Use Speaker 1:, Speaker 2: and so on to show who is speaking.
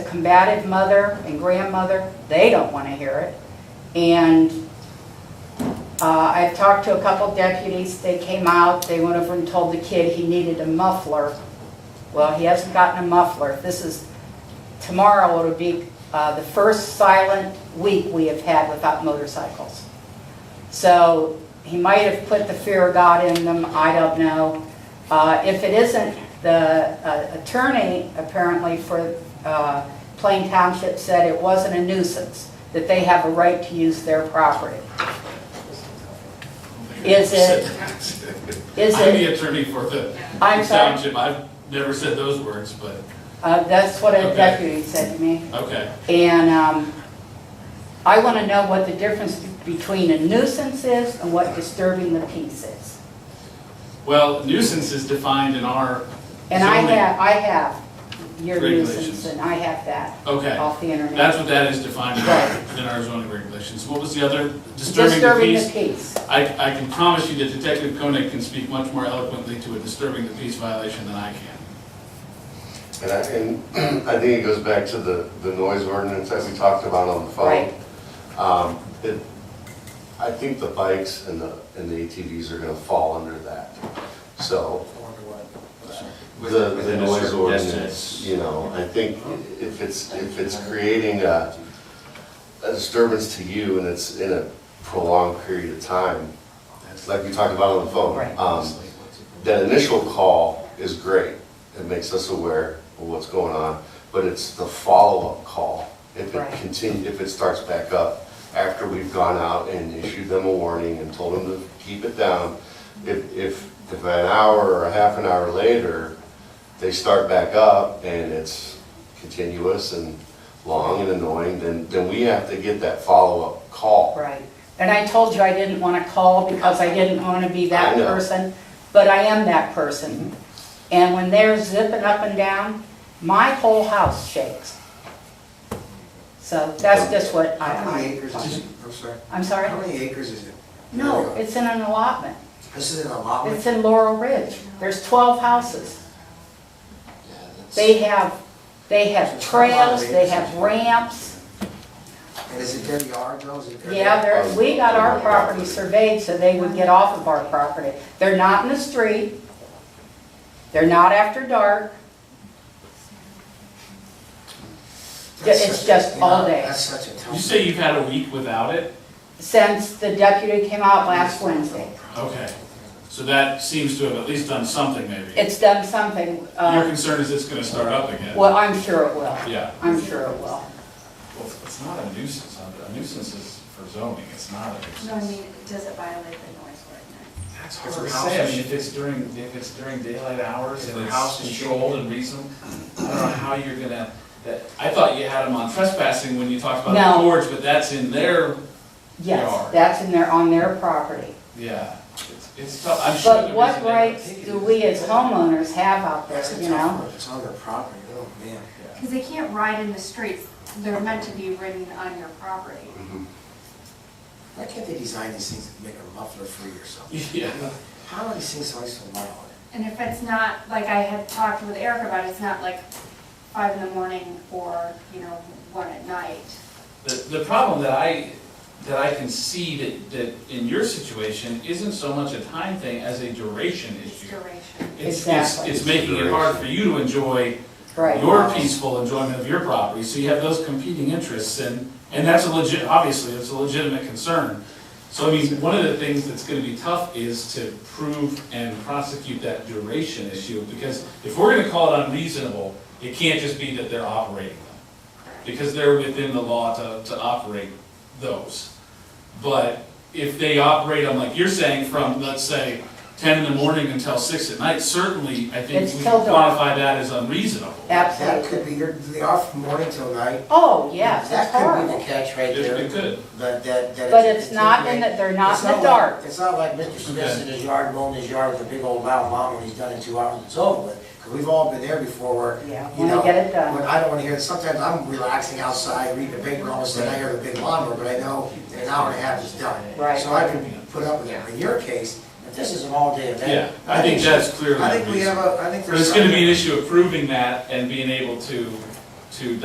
Speaker 1: combative mother and grandmother, they don't want to hear it. And uh, I've talked to a couple deputies, they came out, they went over and told the kid he needed a muffler. Well, he hasn't gotten a muffler. This is, tomorrow it'll be uh, the first silent week we have had without motorcycles. So he might have put the fear of God in them, I don't know. Uh, If it isn't, the uh, attorney apparently for uh, Plain Township said it wasn't a nuisance, that they have a right to use their property. Is it- is
Speaker 2: I'm
Speaker 1: it-
Speaker 2: the attorney for the
Speaker 1: I'm sorry?
Speaker 2: township, I've never said those words, but,
Speaker 1: Uh, That's what a
Speaker 2: Okay.
Speaker 1: deputy said to me.
Speaker 2: okay.
Speaker 1: And um, I want to know what the difference between a nuisance is and what disturbing the peace is.
Speaker 2: Well, nuisance is defined in our
Speaker 1: And I
Speaker 2: zoning.
Speaker 1: have, I have your nuisance,
Speaker 2: Regulations.
Speaker 1: and I have that
Speaker 2: Okay,
Speaker 1: off the internet.
Speaker 2: that's what that is defined in our- in our zoning regulations. What was the other, disturbing the
Speaker 1: Disturbing the
Speaker 2: peace?
Speaker 1: peace.
Speaker 2: I, I can promise you that Detective Koenig can speak much more eloquently to a disturbing the peace violation than I can.
Speaker 3: And I, and I think it goes back to the, the noise ordinance that we talked about on the phone. Um, it, I think the bikes and the, and the ATVs are gonna fall under that, so. The, the
Speaker 4: Within a
Speaker 3: noise
Speaker 4: certain
Speaker 3: ordinance,
Speaker 4: distance.
Speaker 3: you know, I think if it's, if it's creating a, a disturbance to you and it's in a prolonged period of time, it's like we talked about on the phone.
Speaker 1: Right.
Speaker 3: Um, that initial call is great. It makes us aware of what's going on, but it's the follow-up call. If
Speaker 1: Right.
Speaker 3: it continue, if it starts back up after we've gone out and issued them a warning and told them to keep it down, if, if, if an hour or a half an hour later, they start back up and it's continuous and long and annoying, then, then we have to get that follow-up call.
Speaker 1: Right. And I told you I didn't want to call because I didn't want to be that
Speaker 3: I know.
Speaker 1: person, but I am that person. And when they're zipping up and down, my whole house shakes. So that's just what
Speaker 5: How many
Speaker 1: I,
Speaker 5: acres is
Speaker 1: I,
Speaker 5: it? I'm sorry.
Speaker 1: I'm
Speaker 5: How
Speaker 1: sorry?
Speaker 5: many acres is it?
Speaker 1: No, it's in an allotment.
Speaker 5: This is an
Speaker 1: It's
Speaker 5: allotment?
Speaker 1: in Laurel Ridge. There's 12 houses. They have, they have trails, they have ramps.
Speaker 5: And is it their yard though? Is it their-
Speaker 1: Yeah, there, we got our property surveyed so they would get off of our property. They're not in the street. They're not after dark.
Speaker 5: That's
Speaker 1: it's
Speaker 5: such-
Speaker 1: just
Speaker 5: you know,
Speaker 1: all day.
Speaker 5: That's such a
Speaker 2: You
Speaker 5: tough.
Speaker 2: say you've had a week without it?
Speaker 1: Since the deputy came out last Wednesday,
Speaker 2: Okay, so that seems to have at least done something maybe.
Speaker 1: it's done something,
Speaker 2: Your
Speaker 1: uh,
Speaker 2: concern is it's gonna start up again?
Speaker 1: well, I'm sure it will.
Speaker 2: Yeah.
Speaker 1: I'm sure it will.
Speaker 2: Well, it's not a nuisance, a nuisance is for zoning, it's not a
Speaker 6: No, I mean, does it violate the noise ordinance?
Speaker 2: That's
Speaker 5: hard to say. I mean,
Speaker 2: if it's during, if it's during daylight hours
Speaker 4: and it's controlled
Speaker 2: and reasonable, I don't know how you're gonna, that, I thought you had them on trespassing when you talked about
Speaker 1: No.
Speaker 2: the porch, but that's in their,
Speaker 1: Yes,
Speaker 2: Yard.
Speaker 1: that's in their, on their property.
Speaker 2: yeah. It's- It's tough, I'm sure.
Speaker 1: But
Speaker 2: the
Speaker 1: what
Speaker 2: reason they don't
Speaker 1: rights
Speaker 2: take it
Speaker 1: do
Speaker 2: is-
Speaker 1: we as homeowners have out there,
Speaker 5: That's a
Speaker 1: you
Speaker 5: tough
Speaker 1: know?
Speaker 5: one. It's on their property. Oh, man.
Speaker 6: Because they can't ride in the streets, they're meant to be ridden on your property.
Speaker 5: Why can't they design these things to make a muffler free or something?
Speaker 2: Yeah,
Speaker 5: How are these things always so loud?
Speaker 6: And if it's not, like I had talked with Eric about, it's not like five in the morning or, you know, one at night.
Speaker 2: the, the problem that I, that I can see that, that in your situation isn't so much a time thing as a duration
Speaker 6: It's
Speaker 2: issue.
Speaker 6: duration.
Speaker 2: It's, it's,
Speaker 1: Exactly.
Speaker 2: it's making it hard for you to enjoy
Speaker 1: Right.
Speaker 2: your peaceful enjoyment of your property, so you have those competing interests, and, and that's a legit, obviously, that's a legitimate concern. So I mean, one of the things that's gonna be tough is to prove and prosecute that duration issue, because if we're gonna call it unreasonable, it can't just be that they're operating them, because they're within the law to, to operate those. But if they operate on, like you're saying, from, let's say, ten in the morning until six at night, certainly, I think
Speaker 1: It's
Speaker 2: we
Speaker 1: till dark.
Speaker 2: quantify that as unreasonable.
Speaker 5: That could
Speaker 1: Absolutely.
Speaker 5: be, they're, they're off from morning till night.
Speaker 1: Oh, yes, it's
Speaker 5: That could be
Speaker 1: horrible.
Speaker 5: the catch right
Speaker 2: It-
Speaker 5: there.
Speaker 2: it could.
Speaker 5: That, that, that.
Speaker 1: But it's not in the, they're not
Speaker 5: It's
Speaker 1: in the
Speaker 5: like-
Speaker 1: dark.
Speaker 5: It's not like Mr. Smith's in his yard mowing his yard with a big old loud mom and he's done in two hours and it's over with. 'Cause we've all been there before where,
Speaker 1: Yeah,
Speaker 5: you
Speaker 1: wanna
Speaker 5: know.
Speaker 1: get it done.
Speaker 5: When I don't wanna hear it, sometimes I'm relaxing outside, reading the paper, all of a sudden I hear the big lawnmower, but I know in an hour and a half it's done.
Speaker 1: Right.
Speaker 5: So I can put up with it. In your case, if this is an all-day event.
Speaker 2: Yeah, I think that's clearly.
Speaker 5: I think we have
Speaker 2: unreasonable.
Speaker 5: a, I think there's.
Speaker 2: But it's gonna be
Speaker 5: something-
Speaker 2: an issue of proving that and being able to, to